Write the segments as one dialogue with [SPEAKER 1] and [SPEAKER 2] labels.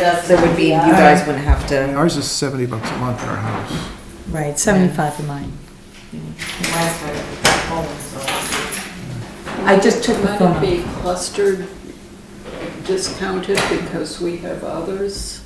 [SPEAKER 1] So it would be, you guys wouldn't have to.
[SPEAKER 2] Ours is 70 bucks a month in our house.
[SPEAKER 3] Right, 75 for mine. I just took the
[SPEAKER 4] Might
[SPEAKER 3] phone
[SPEAKER 4] it
[SPEAKER 3] off.
[SPEAKER 4] be clustered, discounted because we have others?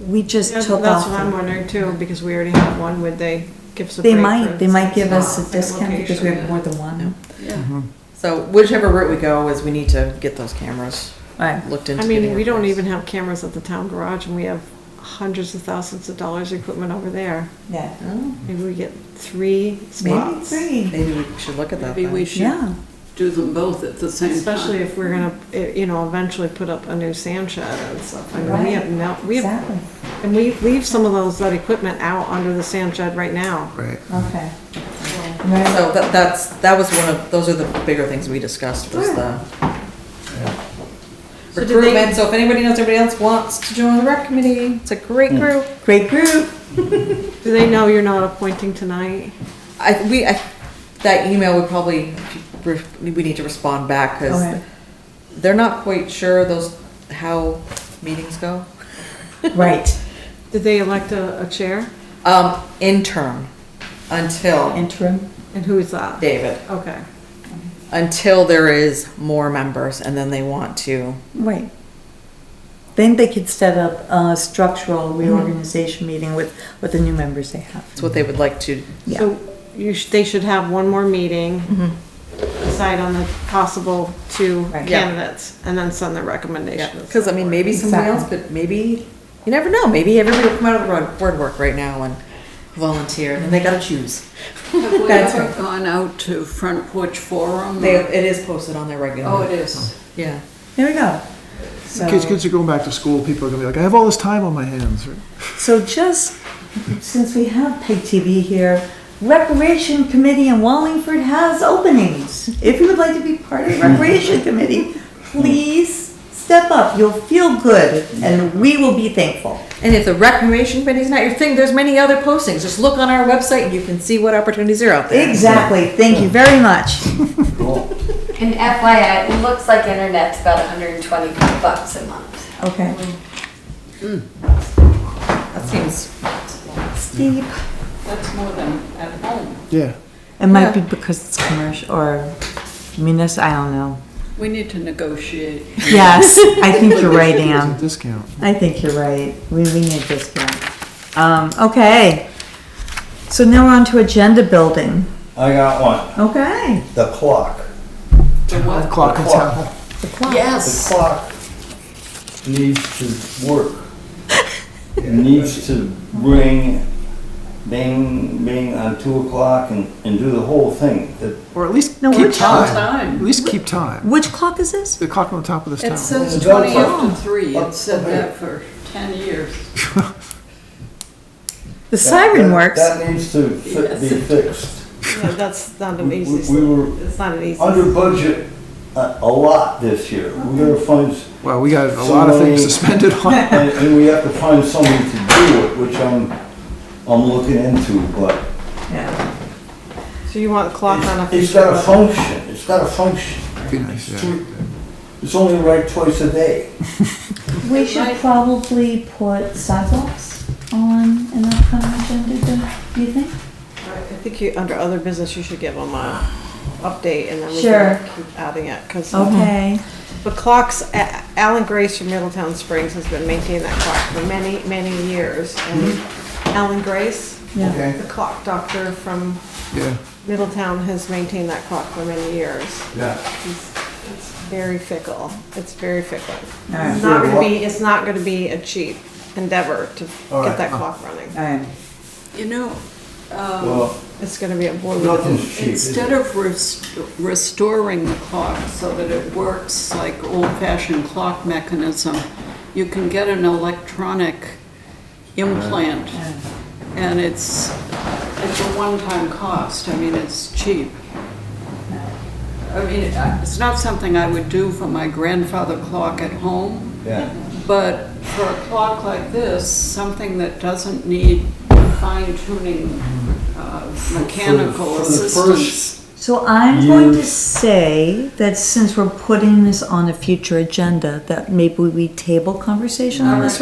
[SPEAKER 3] We just
[SPEAKER 5] Yeah, That's
[SPEAKER 3] took
[SPEAKER 5] what I'm
[SPEAKER 3] off.
[SPEAKER 5] wondering too, because we already have one, would they give us a
[SPEAKER 3] They
[SPEAKER 5] break?
[SPEAKER 3] might,
[SPEAKER 5] for
[SPEAKER 3] they might give us a
[SPEAKER 5] same
[SPEAKER 3] discount because we
[SPEAKER 5] location?
[SPEAKER 3] have more than one.
[SPEAKER 4] Yeah.
[SPEAKER 2] Mm-hmm.
[SPEAKER 1] So whichever route we go is we need to get those cameras
[SPEAKER 3] Right.
[SPEAKER 1] looked into.
[SPEAKER 5] I mean,
[SPEAKER 1] getting
[SPEAKER 5] we don't
[SPEAKER 1] replaced.
[SPEAKER 5] even have cameras at the town garage and we have hundreds of thousands of dollars of equipment over there.
[SPEAKER 3] Yeah.
[SPEAKER 1] Oh,
[SPEAKER 5] Maybe we get three
[SPEAKER 3] Maybe
[SPEAKER 5] spots.
[SPEAKER 3] three.
[SPEAKER 1] Maybe we should look at that
[SPEAKER 4] Maybe we
[SPEAKER 1] then.
[SPEAKER 4] should
[SPEAKER 3] Yeah,
[SPEAKER 4] do them both at the same
[SPEAKER 5] Especially
[SPEAKER 4] time.
[SPEAKER 5] if we're gonna, eh, you know, eventually put up a new sand shed and stuff. I mean, we have no, we have,
[SPEAKER 3] exactly.
[SPEAKER 5] and we leave some of those, that equipment out under the sand shed right now.
[SPEAKER 2] Right.
[SPEAKER 3] Okay. Right.
[SPEAKER 1] So that, that's, that was one of, those are the bigger things we discussed was the
[SPEAKER 5] So do they-
[SPEAKER 1] recruitment. So if anybody knows anybody else wants to join the rec committee, it's a great group.
[SPEAKER 3] Great group.
[SPEAKER 5] Do they know you're not appointing tonight?
[SPEAKER 1] I, we, I, that email would probably, we need to respond back because
[SPEAKER 3] Okay.
[SPEAKER 1] they're not quite sure those, how meetings go.
[SPEAKER 3] Right,
[SPEAKER 5] Did they elect a, a chair?
[SPEAKER 1] Um, interim until
[SPEAKER 3] interim.
[SPEAKER 5] And who is that?
[SPEAKER 1] David,
[SPEAKER 5] Okay.
[SPEAKER 1] until there is more members and then they want to.
[SPEAKER 3] Right. Then they could set up a structural reorganization meeting with, with the new members they
[SPEAKER 1] It's
[SPEAKER 3] have.
[SPEAKER 1] what they would like to.
[SPEAKER 3] Yeah.
[SPEAKER 5] So you sh they should have one more meeting,
[SPEAKER 4] Mm-hmm.
[SPEAKER 5] decide on the possible two
[SPEAKER 3] Right.
[SPEAKER 1] Yeah.
[SPEAKER 5] candidates, and then send the recommendations.
[SPEAKER 1] Because I mean, maybe somebody else could. Maybe you never know. Maybe everybody will come out of the road- board work right now and volunteer, and they got to choose.
[SPEAKER 4] Have we
[SPEAKER 1] That's
[SPEAKER 4] ever gone out to Front Porch Forum?
[SPEAKER 1] They,
[SPEAKER 4] or-
[SPEAKER 1] it is posted on their regular.
[SPEAKER 4] Oh, it is.
[SPEAKER 1] Yeah.
[SPEAKER 3] There we go.
[SPEAKER 2] Kids,
[SPEAKER 3] So,
[SPEAKER 2] kids are going back to school, people are gonna be like, I have all this time on my hands. right?
[SPEAKER 3] so just, since we have Peg TV here, Recreation Committee in Wallingford has openings. If you would like to be part of the Recreation Committee, please step up. You'll feel good and we will be thankful.
[SPEAKER 1] And if the recreation committee's not your thing, there's many other postings. Just look on our website, and you can see what opportunities are out there.
[SPEAKER 3] Exactly. Thank you very much.
[SPEAKER 6] And FYI, it looks like internet's about 120 bucks a month.
[SPEAKER 3] Okay.
[SPEAKER 1] Hmm. That seems.
[SPEAKER 3] Steep.
[SPEAKER 4] That's more than at home.
[SPEAKER 2] Yeah.
[SPEAKER 3] It might be because it's commercial or munis, I don't know.
[SPEAKER 4] We need to negotiate.
[SPEAKER 3] Yes, I think you're right,
[SPEAKER 2] It's a
[SPEAKER 3] Ann.
[SPEAKER 2] discount.
[SPEAKER 3] I think you're right. We, we need a discount. Um, okay. So now we're on to agenda building.
[SPEAKER 7] I got one.
[SPEAKER 3] Okay.
[SPEAKER 7] The clock.
[SPEAKER 4] The what?
[SPEAKER 2] Clock in
[SPEAKER 7] Clock.
[SPEAKER 2] town.
[SPEAKER 7] The
[SPEAKER 4] Yes.
[SPEAKER 7] clock needs to work. It needs to ring, bing, bing on two o'clock and, and do the whole thing. The-
[SPEAKER 2] Or at least
[SPEAKER 3] No,
[SPEAKER 2] keep
[SPEAKER 3] which-
[SPEAKER 2] time. At
[SPEAKER 4] Time.
[SPEAKER 2] least keep time.
[SPEAKER 3] Which clock is this?
[SPEAKER 2] The clock on the top of this
[SPEAKER 4] It
[SPEAKER 2] tower.
[SPEAKER 4] says
[SPEAKER 7] It's
[SPEAKER 4] twenty
[SPEAKER 7] about-
[SPEAKER 4] after three.
[SPEAKER 7] up-
[SPEAKER 4] It said
[SPEAKER 7] up
[SPEAKER 4] that for ten years.
[SPEAKER 3] The siren
[SPEAKER 7] that-
[SPEAKER 3] works.
[SPEAKER 7] That needs to fi- be fixed.
[SPEAKER 5] Yeah, that's not an
[SPEAKER 7] We-
[SPEAKER 5] easy, s-
[SPEAKER 7] We were
[SPEAKER 5] it's not an easy. s-
[SPEAKER 7] under budget a, a lot this year. We're gonna find, s-
[SPEAKER 2] Well, we got a lot of things suspended on.
[SPEAKER 7] and, and we have to find somebody to do it, which I'm, I'm looking into, but
[SPEAKER 3] Yeah.
[SPEAKER 5] So you want a clock on a
[SPEAKER 7] It's
[SPEAKER 5] future
[SPEAKER 7] got a
[SPEAKER 5] one?
[SPEAKER 7] function, it's got a function.
[SPEAKER 2] Be nice, yeah.
[SPEAKER 7] Two- It's only right twice a day.
[SPEAKER 3] We should probably put sidewalks on an upcoming agenda, do you think?
[SPEAKER 5] I think you, under other business, you should give them a update and then we
[SPEAKER 3] Sure.
[SPEAKER 5] can keep adding it, because.
[SPEAKER 3] Okay.
[SPEAKER 5] The clocks, A- Alan Grace from Middletown Springs has been maintaining that clock for many, many years. And
[SPEAKER 7] Mm-hmm.
[SPEAKER 5] Alan Grace,
[SPEAKER 3] Yeah.
[SPEAKER 5] the clock doctor from
[SPEAKER 2] Yeah.
[SPEAKER 5] Middletown has maintained that clock for many years.
[SPEAKER 7] Yeah.
[SPEAKER 5] It's it's very fickle. It's very fickle.
[SPEAKER 3] Alright.
[SPEAKER 5] It's not gonna be, it's not gonna be a cheap endeavor to
[SPEAKER 7] Alright.
[SPEAKER 5] get that clock running.
[SPEAKER 3] All right.
[SPEAKER 4] You know,
[SPEAKER 7] Well,
[SPEAKER 5] It's gonna be a boilerplate.
[SPEAKER 7] nothing's cheap. is
[SPEAKER 4] Instead
[SPEAKER 7] it?
[SPEAKER 4] of rest- restoring the clock so that it works like old-fashioned clock mechanism, you can get an electronic implant, and it's, it's a one-time cost, I mean, it's cheap. I mean, I- it's not something I would do for my grandfather clock at home,
[SPEAKER 7] Yeah.
[SPEAKER 4] but for a clock like this, something that doesn't need fine-tuning uh, mechanical
[SPEAKER 7] for the
[SPEAKER 4] assistance.
[SPEAKER 3] So I'm going to
[SPEAKER 7] Use-
[SPEAKER 3] say that since we're putting this on a future agenda, that maybe we table conversation on this